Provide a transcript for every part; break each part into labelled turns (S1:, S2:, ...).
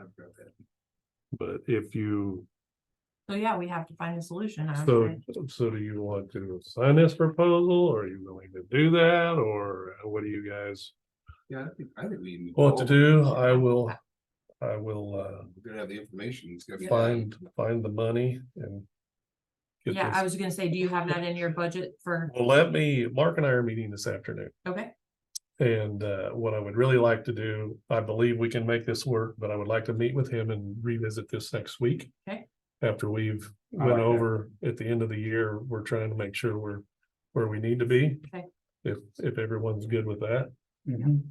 S1: I've got that.
S2: But if you,
S3: So yeah, we have to find a solution. I would
S2: so,
S3: say.
S2: so do you want to sign this proposal? Are you willing to do that? Or uh, what do you guys
S1: Yeah, I think, I think we. need
S2: want to
S1: go over
S2: do?
S1: it.
S2: I will, I will, uh,
S1: We're gonna have the information, it's gonna be.
S2: find, find the money and. get
S3: Yeah, I
S2: this-
S3: was gonna say, do you have that in your budget for,
S2: Well, let me, Mark and I are meeting this afternoon.
S3: okay,
S2: And uh, what I would really like to do, I believe we can make this work, but I would like to meet with him and revisit this next week.
S3: Okay.
S2: After we've
S1: I
S2: went
S1: like that.
S2: over at the end of the year, we're trying to make sure we're where we need to be.
S3: Okay.
S2: If, if everyone's good with that, Mm-hmm.
S1: Mhm.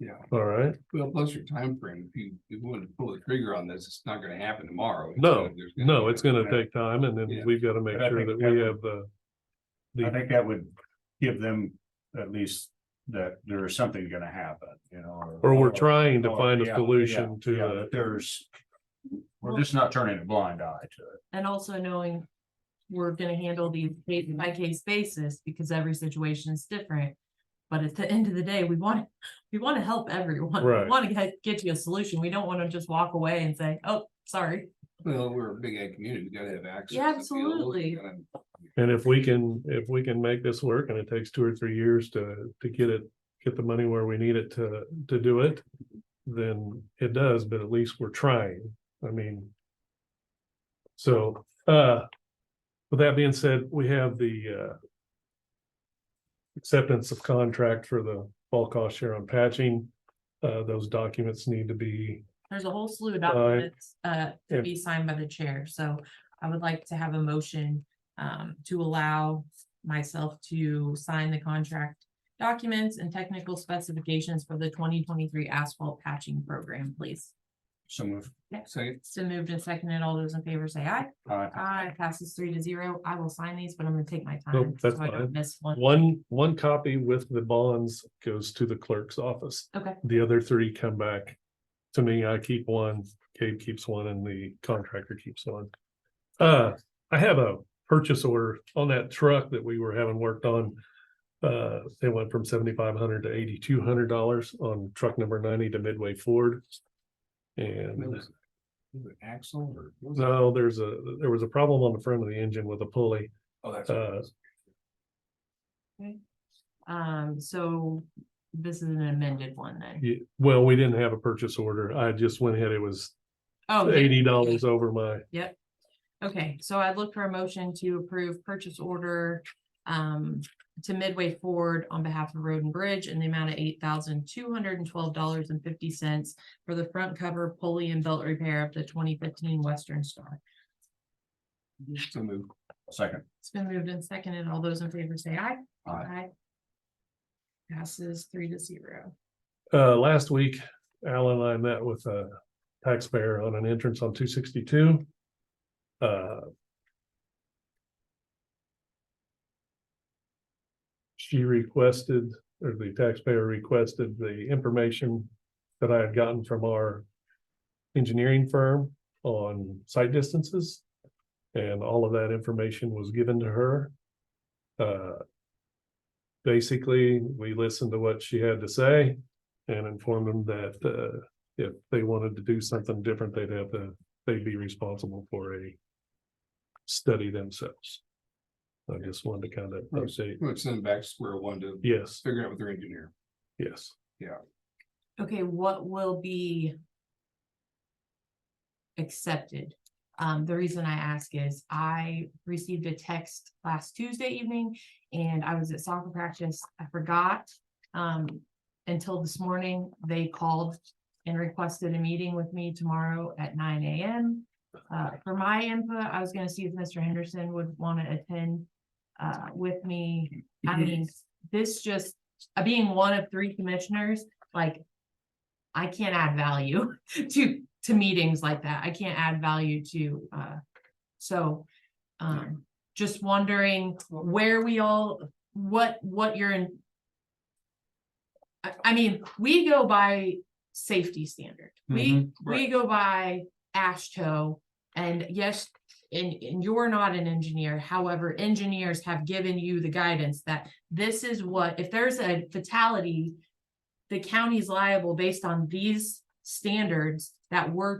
S1: Yeah,
S2: all right,
S1: well, plus your timeframe, if you, if you wanted to pull the trigger on this, it's not gonna happen tomorrow. It's
S2: No,
S1: gonna- there's gonna
S2: no,
S1: be-
S2: it's gonna take time and then
S1: Yeah.
S2: we've got to make
S4: But I
S2: sure that
S4: think
S2: we
S4: that-
S2: have the. The,
S4: I think that would give them at least that there is something gonna happen, you know.
S2: or we're trying to
S4: or-
S2: find a
S4: Oh, yeah,
S2: solution to
S4: yeah, yeah,
S2: the,
S4: that There's, we're just not turning a blind eye to it.
S3: and also knowing. We're gonna handle these case by case basis because every situation is different. But at the end of the day, we want, we wanna help everyone.
S2: Right.
S3: We Wanna get, get you a solution. We don't wanna just walk away and say, oh, sorry.
S1: Well, we're a big ag community, we gotta have access.
S3: Yeah,
S1: to fields,
S3: absolutely.
S1: you gotta-
S2: and if we can, if we can make this work and it takes two or three years to, to get it. Get the money where we need it to, to do it, then it does, but at least we're trying, I mean. So, uh, with that being said, we have the, uh. Acceptance of contract for the bulk cost share on patching, uh, those documents need to be
S3: There's a whole slew of documents, uh, to
S2: and-
S3: be signed by the chair, so I would like to have a motion. Um, to allow myself to sign the contract documents and technical specifications for the twenty twenty-three asphalt patching program, please.
S4: Some of,
S1: Say,
S3: So moved and seconded, all those in favor say aye.
S4: uh,
S3: Aye, passes three to zero, I will sign these, but I'm gonna take my
S2: Nope,
S3: time, so
S2: that's
S3: I
S2: fine.
S3: don't miss one.
S2: One, one copy with the bonds goes to the clerk's office.
S3: Okay.
S2: The other three come back to me. I keep one, Gabe keeps one, and the contractor keeps one. Uh, I have a purchase order on that truck that we were having worked on. Uh, it went from seventy-five hundred to eighty-two hundred dollars on truck number ninety to Midway Ford.
S1: what
S2: And
S1: was it? Was it Axle or? what was it?
S2: no, there's a, there was a problem on the front of the engine with a pulley.
S1: Oh, that's. what it
S2: uh,
S1: was.
S3: Um, so this is an amended one then.
S2: Ye- Well, we didn't have a purchase order. I just went ahead. It was
S3: Oh, yeah.
S2: eighty dollars over my,
S3: Okay, so I'd look for a motion to approve purchase order um to Midway Ford on behalf of Road and Bridge in the amount of eight thousand two hundred and twelve dollars and fifty cents for the front cover pulley and belt repair of the twenty fifteen Western Star.
S1: So moved.
S4: second,
S3: It's been moved and seconded. All those in favor say aye.
S4: Aye.
S3: Passes three to zero.
S2: uh, last week, Alan and I met with a taxpayer on an entrance on two sixty-two. Uh. She requested, or the taxpayer requested the information that I had gotten from our engineering firm on site distances. And all of that information was given to her. Uh, basically, we listened to what she had to say and informed them that uh, if they wanted to do something different, they'd have to, they'd be responsible for a study themselves. I just wanted to kind of
S1: Right.
S2: update.
S1: Let's send them back to square one to
S2: Yes,
S1: figure out with their engineer.
S2: yes.
S3: Okay, what will be accepted? Um, the reason I ask is I received a text last Tuesday evening and I was at soccer practice. I forgot. Um, until this morning, they called and requested a meeting with me tomorrow at nine AM. Uh, for my input, I was gonna see if Mr. Henderson would want to attend uh, with me. I mean, this just, uh, being one of three commissioners, like I can't add value to, to meetings like that. I can't add value to, uh, so, um, just wondering where we all, what, what you're in. I, I mean, we go by safety standard. We, we
S1: right.
S3: go by ASHTO. And yes, and, and you're not an engineer. However, engineers have given you the guidance that this is what, if there's a fatality, the county's liable based on these standards that were